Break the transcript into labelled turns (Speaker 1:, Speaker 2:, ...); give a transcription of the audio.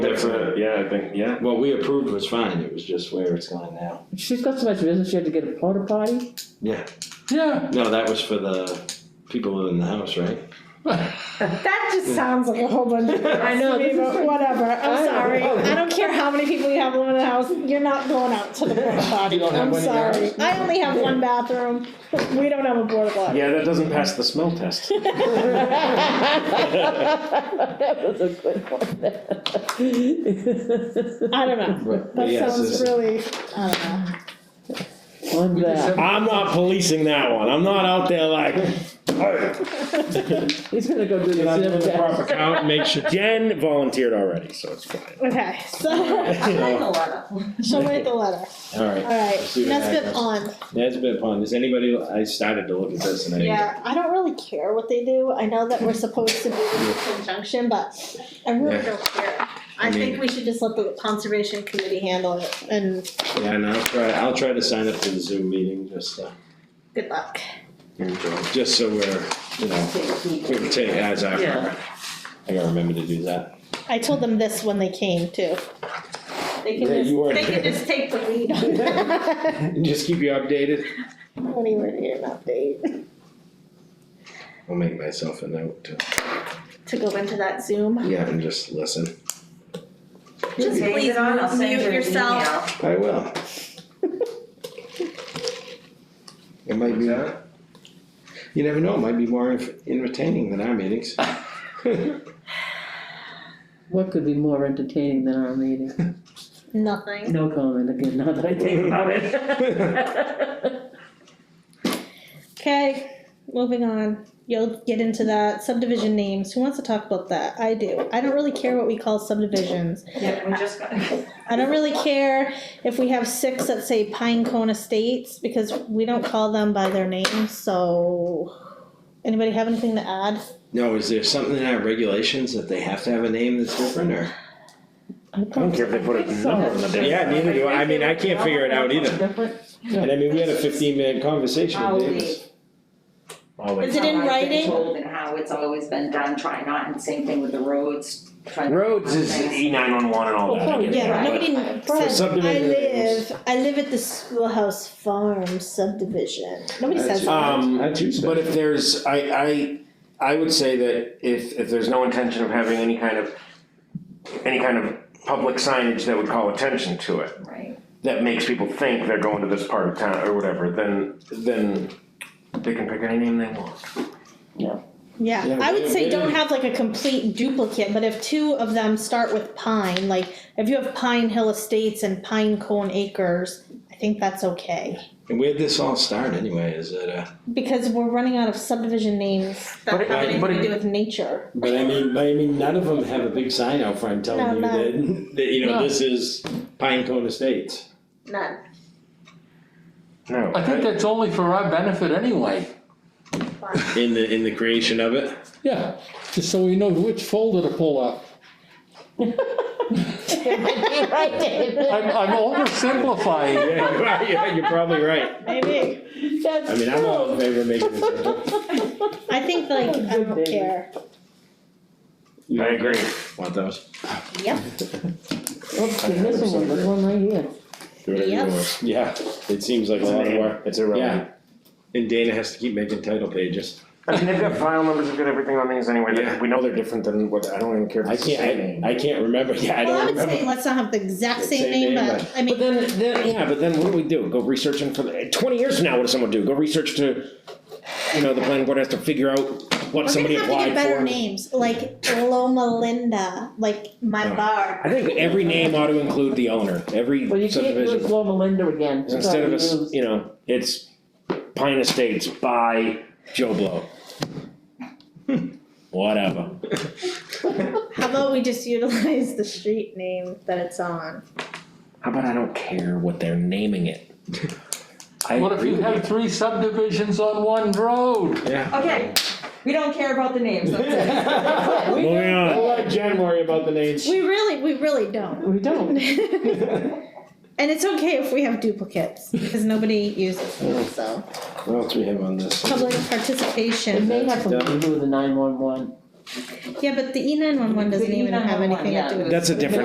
Speaker 1: That's it, yeah, I think, yeah.
Speaker 2: What we approved was fine, it was just where it's going now.
Speaker 3: She's got so much business, she had to get a porta potty?
Speaker 2: Yeah,
Speaker 4: Yeah.
Speaker 2: no, that was for the people in the house, right?
Speaker 5: That just sounds like a whole bunch of
Speaker 3: I know,
Speaker 5: to me,
Speaker 3: this is-
Speaker 5: but whatever. I'm
Speaker 3: I know.
Speaker 5: sorry. I don't care how many people you have living in the house. You're not going out to the porta potty.
Speaker 4: You don't have
Speaker 5: I'm
Speaker 4: one in your
Speaker 5: sorry.
Speaker 4: house?
Speaker 5: I only have one bathroom. We don't have a porta potty.
Speaker 1: Yeah, that doesn't pass the smell test.
Speaker 3: That was a good one.
Speaker 5: I don't know.
Speaker 2: Right.
Speaker 5: That
Speaker 2: Yes,
Speaker 5: sounds
Speaker 2: it's-
Speaker 5: really. I don't know.
Speaker 3: On that,
Speaker 1: I'm not policing that one, I'm not out there like, "Hey."
Speaker 3: he's gonna go do the
Speaker 1: Not
Speaker 3: zip
Speaker 1: doing the proper
Speaker 3: test.
Speaker 1: count, make sure, Jen volunteered already, so it's fine.
Speaker 5: Okay, so she'll write the letter.
Speaker 2: Alright.
Speaker 5: All right.
Speaker 2: Let's see what
Speaker 5: Nesbit
Speaker 2: happens.
Speaker 5: on.
Speaker 2: Nesbit Pond, is anybody, I started to look at this and I.
Speaker 5: Yeah, I don't really care what they do. I know that we're supposed to do this in conjunction, but I really
Speaker 2: Yeah.
Speaker 5: don't care.
Speaker 2: I
Speaker 5: I
Speaker 2: mean-
Speaker 5: think we should just let the conservation committee handle it and
Speaker 2: Yeah, and I'll try, I'll try to sign up for the Zoom meeting, just, uh,
Speaker 5: good luck.
Speaker 2: just so we're, you know, we can take as our.
Speaker 6: Yeah.
Speaker 2: I gotta remember to do that.
Speaker 5: I told them this when they came too. They
Speaker 2: Yeah,
Speaker 5: can just,
Speaker 2: you weren't
Speaker 5: they can
Speaker 2: there.
Speaker 5: just take the lead on that.
Speaker 2: And just keep you updated.
Speaker 5: I don't even need an update
Speaker 2: I'll make myself a note to,
Speaker 5: to go into that Zoom.
Speaker 2: yeah, and just listen.
Speaker 5: Just
Speaker 6: Days
Speaker 5: please
Speaker 6: on, I'll send
Speaker 5: mute
Speaker 6: you an
Speaker 5: yourself.
Speaker 6: email.
Speaker 2: I will. It might be. You never know, it might be more enf- entertaining than our meetings.
Speaker 3: What could be more entertaining than our meeting?
Speaker 5: Nothing.
Speaker 3: No comment again, now that I think about it.
Speaker 5: Okay, moving on. You'll get into that subdivision names. Who wants to talk about that? I do. I don't really care what we call subdivisions.
Speaker 6: Yeah, we just got.
Speaker 5: I don't really care if we have six that say Pine Cone Estates because we don't call them by their names. So, anybody have anything to add?
Speaker 2: No, is there something in our regulations that they have to have a name that's different or?
Speaker 3: I
Speaker 1: I don't care if they put a number on the damn.
Speaker 2: Yeah, neither do I, I mean, I can't figure it out either.
Speaker 3: Different?
Speaker 2: And I mean, we had a fifteen minute conversation
Speaker 6: I'll
Speaker 2: with Davis.
Speaker 1: All
Speaker 5: Is
Speaker 1: they-
Speaker 5: it in
Speaker 6: How I've been
Speaker 5: writing?
Speaker 6: told and how it's always been done, try not, and same thing with the roads, try. not-
Speaker 1: Roads is E nine one one and all that, I get
Speaker 5: Oh, Yeah,
Speaker 1: that,
Speaker 6: Right.
Speaker 5: nobody
Speaker 2: For
Speaker 5: said I
Speaker 2: subdivision names.
Speaker 5: live. I live at the schoolhouse farm subdivision. Nobody says
Speaker 2: That's-
Speaker 5: that.
Speaker 1: Um,
Speaker 2: I choose that.
Speaker 1: But if there's, I, I, I would say that if, if there's no intention of having any kind of, any kind of public signage that would call attention to it,
Speaker 6: Right,
Speaker 1: that makes people think they're going to this part of town or whatever, then, then they can pick any name they want.
Speaker 5: Yeah,
Speaker 2: Yeah,
Speaker 5: I
Speaker 2: they-
Speaker 5: would say
Speaker 2: they-
Speaker 5: don't have like a complete duplicate, but if two of them start with pine, like if you have Pine Hill Estates and Pine Cone Acres, I think that's okay.
Speaker 2: And where'd this all start anyway, is it, uh?
Speaker 5: Because we're running out of subdivision names that
Speaker 1: But
Speaker 5: have
Speaker 1: it-
Speaker 5: anything
Speaker 1: but
Speaker 5: to
Speaker 1: it-
Speaker 5: do with nature.
Speaker 2: But I mean, but I mean, none of them have a big sign out front
Speaker 5: No,
Speaker 2: telling you
Speaker 5: none.
Speaker 2: that, that, you know, this is Pine Cone Estates.
Speaker 5: None.
Speaker 1: No.
Speaker 4: I think that's only for our benefit anyway.
Speaker 2: In the, in the creation of it?
Speaker 4: Yeah, just so we know which folder to pull up.
Speaker 3: Right, David.
Speaker 4: I'm, I'm oversimplifying.
Speaker 2: Yeah, you are, yeah, you're probably right.
Speaker 5: Maybe.
Speaker 3: That's
Speaker 2: I mean, I'm all in favor of making it.
Speaker 5: I think like I don't
Speaker 3: David.
Speaker 5: care.
Speaker 1: I agree.
Speaker 2: Want those?
Speaker 5: Yep.
Speaker 3: Oops, you're missing one, there's one right here.
Speaker 2: Do whatever you
Speaker 5: Yep.
Speaker 2: want. Yeah, it seems like a
Speaker 1: It's
Speaker 2: lot of work.
Speaker 1: It's
Speaker 2: Yeah. And Dana has to keep making title pages.
Speaker 1: I mean, they've got file numbers, they've got everything on these anyway,
Speaker 2: Yeah.
Speaker 1: they- we know they're different than what, I don't even care if
Speaker 2: I
Speaker 1: it's the same name.
Speaker 2: can't, I, I can't remember, yeah, I
Speaker 5: Well, I
Speaker 2: don't
Speaker 5: would say
Speaker 2: remember.
Speaker 5: let's not have the exact
Speaker 2: The
Speaker 5: same
Speaker 2: same
Speaker 5: name,
Speaker 2: name,
Speaker 5: but
Speaker 2: but-
Speaker 5: I mean.
Speaker 1: But then, then, yeah, but then what do we do? Go researching for, the- twenty years from now, what does someone do? Go research to, you know, the planning board has to figure out what somebody
Speaker 5: We're gonna have to
Speaker 1: applied
Speaker 5: get
Speaker 1: for.
Speaker 5: better names, like Loma Linda, like my
Speaker 2: Oh.
Speaker 5: bar.
Speaker 1: I think every name ought to include the owner, every
Speaker 3: Well, you can't use
Speaker 1: subdivision,
Speaker 3: Loma Linda again, so
Speaker 1: instead of, us,
Speaker 3: use-
Speaker 1: you know, it's Pine Estates by Joe Blow. Whatever,
Speaker 5: How about we just utilize the street name that it's on?
Speaker 1: how about I don't care what they're naming it? I
Speaker 4: What if
Speaker 1: agree
Speaker 4: you
Speaker 1: with
Speaker 4: had three subdivisions on one road?
Speaker 2: Yeah.
Speaker 6: okay, we don't care about the names, that's it.
Speaker 1: Moving on.
Speaker 2: let Jen worry about the names.
Speaker 5: We really, we really don't.
Speaker 3: We don't.
Speaker 5: And it's okay if we have duplicates, because nobody uses them, so.
Speaker 2: What else we have on this?
Speaker 5: Public
Speaker 3: It
Speaker 5: participation.
Speaker 3: may have something to do with the nine-one-one.
Speaker 5: Yeah, but the E nine one one doesn't even have anything to do with.
Speaker 1: That's a different